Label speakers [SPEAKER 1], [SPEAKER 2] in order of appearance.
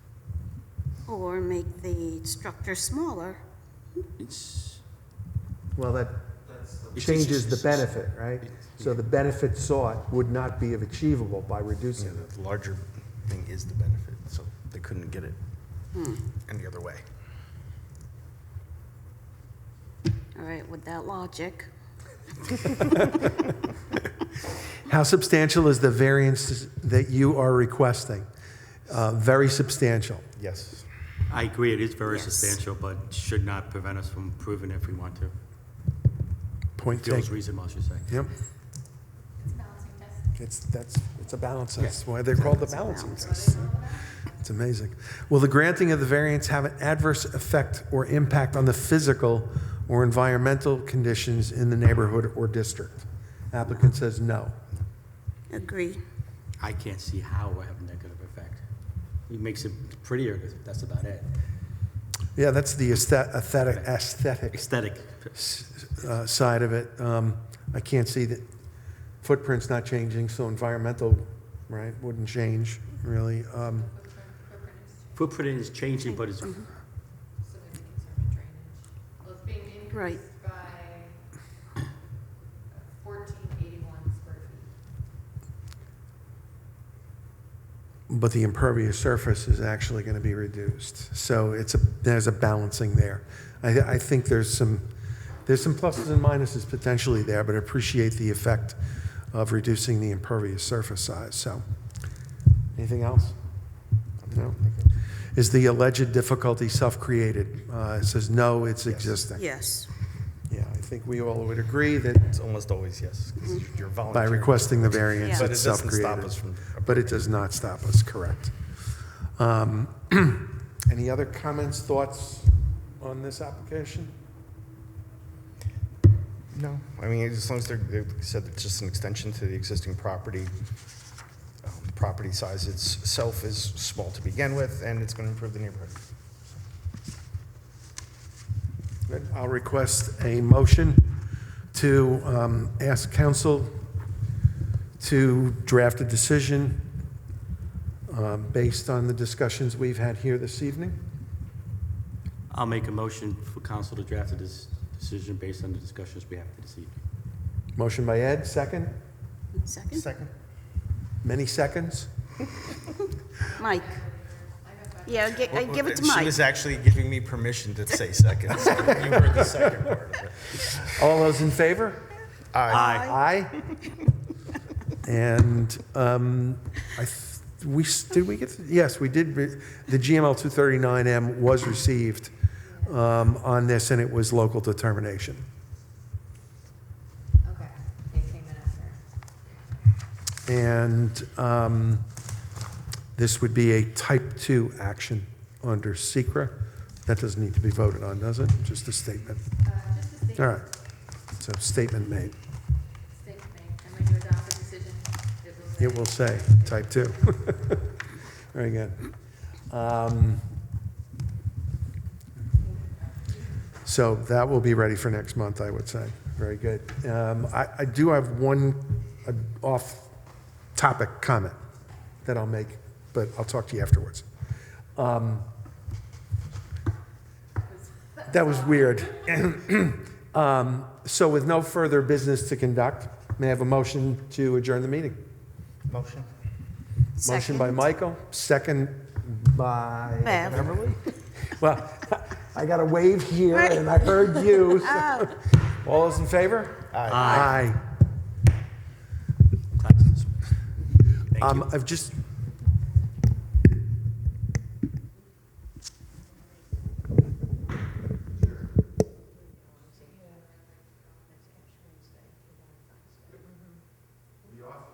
[SPEAKER 1] or make the structure smaller.
[SPEAKER 2] It's,
[SPEAKER 3] Well, that
[SPEAKER 2] It's-
[SPEAKER 3] changes the benefit, right? So the benefit sought would not be achievable by
[SPEAKER 4] Yeah,
[SPEAKER 3] reducing it.
[SPEAKER 4] the larger thing is the benefit, so they couldn't get it
[SPEAKER 1] Hmm.
[SPEAKER 4] any other way.
[SPEAKER 1] All right, with that logic,
[SPEAKER 5] How substantial is the variance that you are requesting? Uh, Very substantial.
[SPEAKER 4] Yes.
[SPEAKER 2] I agree, it is very
[SPEAKER 1] Yes.
[SPEAKER 2] substantial, but should not prevent us from improving if we want to.
[SPEAKER 5] Point
[SPEAKER 2] Feels
[SPEAKER 5] taken.
[SPEAKER 2] reasonable, I should say.
[SPEAKER 5] Yep. It's, that's, it's a balance, that's why they're called the
[SPEAKER 1] It's a
[SPEAKER 5] balancing
[SPEAKER 1] balance.
[SPEAKER 5] test. It's amazing. Will the granting of the variance have an adverse effect or impact on the physical or environmental conditions in the neighborhood or district? Applicant says no.
[SPEAKER 1] agree.
[SPEAKER 2] I can't see how it would have a negative effect. It makes it prettier, but that's about it.
[SPEAKER 5] Yeah, that's the aesthet- aesthetic, aesthetic
[SPEAKER 2] Aesthetic,
[SPEAKER 5] s- uh, side of it. Um, I can't see that footprint's not changing, so environmental, right, wouldn't change, really. Um,
[SPEAKER 2] footprint is changing, but it's,
[SPEAKER 6] so that they can serve a drainage. Well, it's being
[SPEAKER 1] Right.
[SPEAKER 6] increased by fourteen eighty-one square feet.
[SPEAKER 5] but the impervious surface is actually going to be reduced. So it's a, there's a balancing there. I, I think there's some, there's some pluses and minuses potentially there, but I appreciate the effect of reducing the impervious surface size, so. Anything else? No? Is the alleged difficulty self-created? Uh, it says, no, it's existing.
[SPEAKER 1] Yes.
[SPEAKER 5] Yeah, I think we all would agree that
[SPEAKER 4] It's almost always yes, because
[SPEAKER 1] Hmm.
[SPEAKER 4] you're
[SPEAKER 5] by
[SPEAKER 4] volunteering.
[SPEAKER 5] requesting the variance,
[SPEAKER 4] But it
[SPEAKER 5] it's
[SPEAKER 4] doesn't stop
[SPEAKER 5] self-created.
[SPEAKER 4] us from.
[SPEAKER 5] But it does not stop us, correct. Um, Any other comments, thoughts on this application?
[SPEAKER 4] No, I mean, as long as they're, they said it's just an extension to the existing property. Um, Property size itself is small to begin with, and it's going to improve the neighborhood.
[SPEAKER 5] Then I'll request a motion to um, ask council to draft a decision um, based on the discussions we've had here this evening.
[SPEAKER 2] I'll make a motion for council to draft this decision based on the discussions we have this evening.
[SPEAKER 5] Motion by Ed, second?
[SPEAKER 1] Second?
[SPEAKER 4] Second?
[SPEAKER 5] Many seconds?
[SPEAKER 1] Mike? Yeah, gi- uh, give it to
[SPEAKER 4] She
[SPEAKER 1] Mike.
[SPEAKER 4] was actually giving me permission to say second. so You heard the second part of it.
[SPEAKER 5] All those in favor?
[SPEAKER 2] Aye.
[SPEAKER 5] Aye. And um, I, th- we, s- did we get, yes, we did, re- the GML 239M was received um, on this, and it was local determination.
[SPEAKER 6] Okay, they came in after.
[SPEAKER 5] And um, this would be a type 2 action under Secra. That doesn't need to be voted on, does it? Just a statement.
[SPEAKER 6] Uh, just a state,
[SPEAKER 5] All right, so statement made.
[SPEAKER 6] state thing, and when you adopt the decision, it will say.
[SPEAKER 5] It will say, type 2. Very good. Um, So that will be ready for next month, I would say. Very good. Um, I I do have one uh, off-topic comment that I'll make, but I'll talk to you afterwards. Um, That was weird. Um, So with no further business to conduct, may I have a motion to adjourn the meeting?
[SPEAKER 4] Motion?
[SPEAKER 5] Motion by
[SPEAKER 1] Second.
[SPEAKER 5] Michael, second by,
[SPEAKER 1] Bev?
[SPEAKER 5] well, I got a wave here and I heard you.
[SPEAKER 1] Oh.
[SPEAKER 5] so- All those in favor? Aye.
[SPEAKER 2] Aye. Thank you.
[SPEAKER 5] Um, I've just,